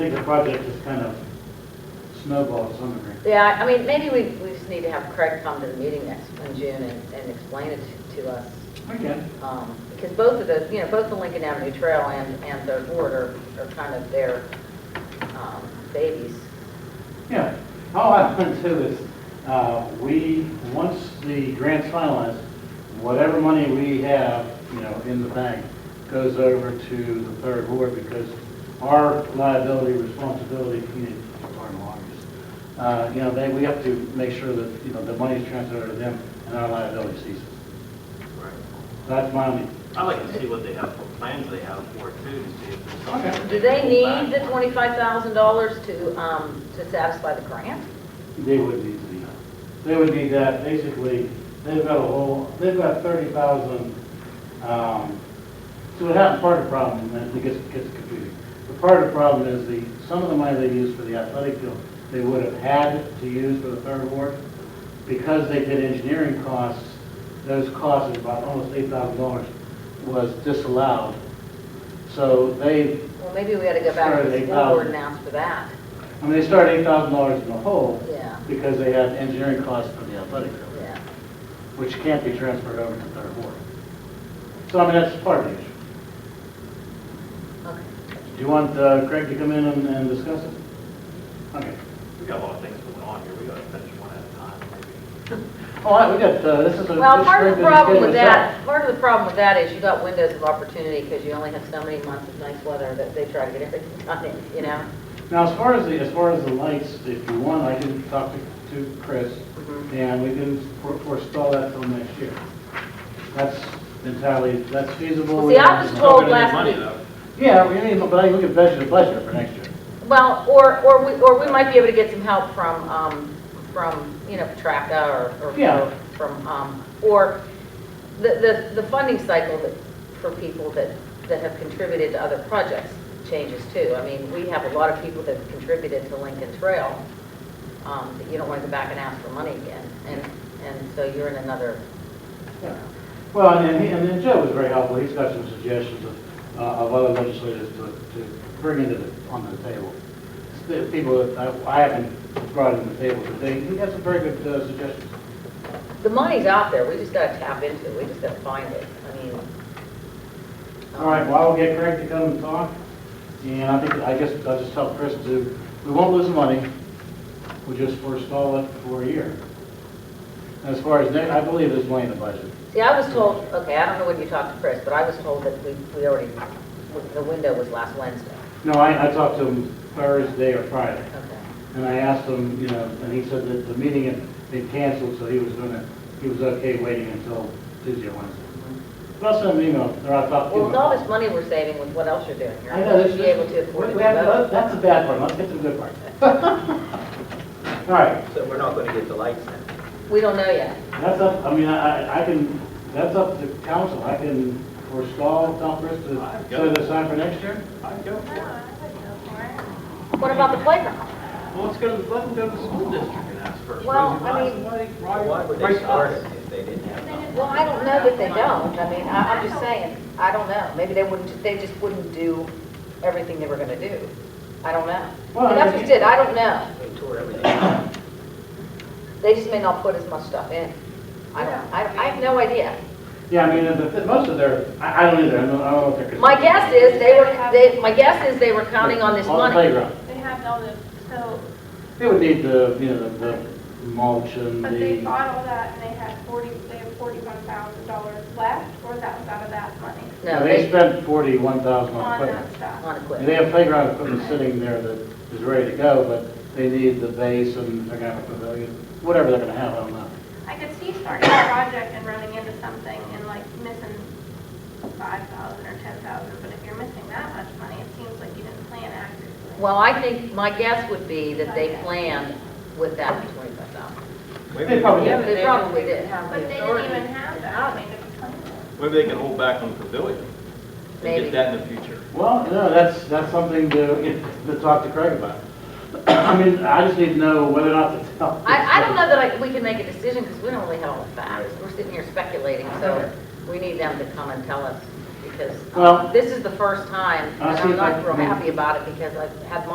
think the project just kind of snowballed some degree. Yeah, I I mean, maybe we, we just need to have Craig come to the meeting next, in June and, and explain it to- to us. Okay. um, Because both of those, you know, both the Lincoln Avenue Trail and, and Third Ward are, are kind of their um, babies. Yeah, all I want to do is, uh, we, once the grant's finalized, whatever money we have, you know, in the bank goes over to the third ward because our liability, responsibility, community, pardon, lawyers, uh, you know, they, we have to make sure that, you know, the money's transferred to them and our liability ceases. That's my only, I'd like to see what they have, what plans they have for it too, to see if there's something. Okay. that Do they can hold need the back on. twenty-five thousand dollars to, um, to satisfy the grant? they would need to be, they would need that, basically, they've got a whole, they've got thirty thousand, um, so it has part of the problem, and it gets, gets confusing. But part of the problem is the, some of the money they used for the athletic field, they would have had to use for the third ward. Because they did engineering costs, those costs of about almost eight thousand dollars was disallowed. So they Well, maybe we ought to go back to the Sorry, school um, board and ask for that, I mean, they started eight thousand dollars in the hole. Yeah. Because they had engineering costs for the athletic field, yeah. which can't be transferred over to third ward. So I mean, that's part of the issue. Okay. Do you want uh, Craig to come in and, and discuss it? Okay. We got a lot of things going on here, we gotta finish one at a time, maybe. All right, we got, uh, this is a. Well, this part of Craig the didn't problem give us with that, part of the problem with that is you got windows of opportunity because you only have so many months of nice weather that they try to get everything done in, you know? Now, as far as the, as far as the lights, if you want, I can talk to, to Chris, Mhm. and we can for- forestall that till next year. That's entirely, that's feasible. Well, see, I was and- told We're gonna need last money, week, though. Yeah, we need, but I look at budget, budget for next year. well, or, or we, or we might be able to get some help from, um, from, you know, Patraca or, or Yeah. or from, um, or the, the, the funding cycle that, for people that, that have contributed to other projects changes too. I mean, we have a lot of people that have contributed to Lincoln Trail, um, that you don't want to go back and ask for money again. And, and so you're in another, Yeah. Well, and then, he- and then Joe was very helpful, he's got some suggestions of, uh, of other legislators to, to bring into the, onto the table. The People that I I haven't brought into the table today, he has some very good uh, suggestions. the money's out there, we just gotta tap into it, we just gotta find it, I mean. All right, well, I'll get Craig to come and talk, and I think, I guess, I'll just tell Chris to, we won't lose money, we'll just forestall it for a year. As far as, ne- I believe there's money in the budget. See, I was told, okay, I don't know when you talked to Chris, but I was told that we, we already, the window was last Wednesday. No, I, I talked to him Thursday or Friday. Okay. And I asked him, you know, and he said that the meeting had been canceled, so he was gonna, he was okay waiting until Tuesday or Wednesday. But I sent him an email, or I thought. Well, with all this money we're saving, with what else you're doing here, I know, I this should be able to afford we- it. we have to- That's the bad part, let's get to the good part. All right, So we're not gonna get the lights then? We don't know yet. that's up, I mean, I, I- I can, that's up to council, I can forestall Southbridge to I've got set it. it aside for next year. I'd go for it. What about the playground? Well, let's go to, let them go to the school district and ask first. Well, Raise I money, mean- money, right- Why would they raise start us. it if they didn't have them? Well, I don't know that they don't, I mean, I, I'm just saying, I don't know, maybe they wouldn't, they just wouldn't do everything they were gonna do. I don't know. Well, I And That's what you did, I don't know, They tore everything down. they just may not put as much stuff in. I don't, I, I have no idea. Yeah, I mean, the- the, most of their, I, I don't either, I don't, I don't know what they're. My guess is they were, they, my guess is they were counting on this On the money. playground. They have all the, so, They would need the, you know, the the mulch and the. but they bought all that and they had forty, they have forty-one thousand dollars left, or that was out of that money? No, They they, spent forty-one thousand on On uh, that equipment. stuff. on And equipment. They have playground equipment sitting there that is ready to go, but they need the base and they're gonna have a pavilion, whatever they're gonna have, I don't know. I could see starting a project and running into something and like missing five thousand or ten thousand, but if you're missing that much money, it seems like you didn't plan accurately. Well, I think, my guess would be that they planned with that twenty-five thousand. Maybe They probably- we- Yeah, They probably did. But they didn't even have that, I mean, to plan it. Maybe they can hold back on the pavilion and Maybe. get that in the future. Well, no, that's, that's something to, to talk to Craig about. I mean, I just need to know whether or not to tell. I, I don't know that I, we can make a decision because we don't really have all the facts. We're sitting here speculating, so we need them to come and tell us because um, Well- this is the first time. I'll And see I'm if I not real can- happy about it because I've had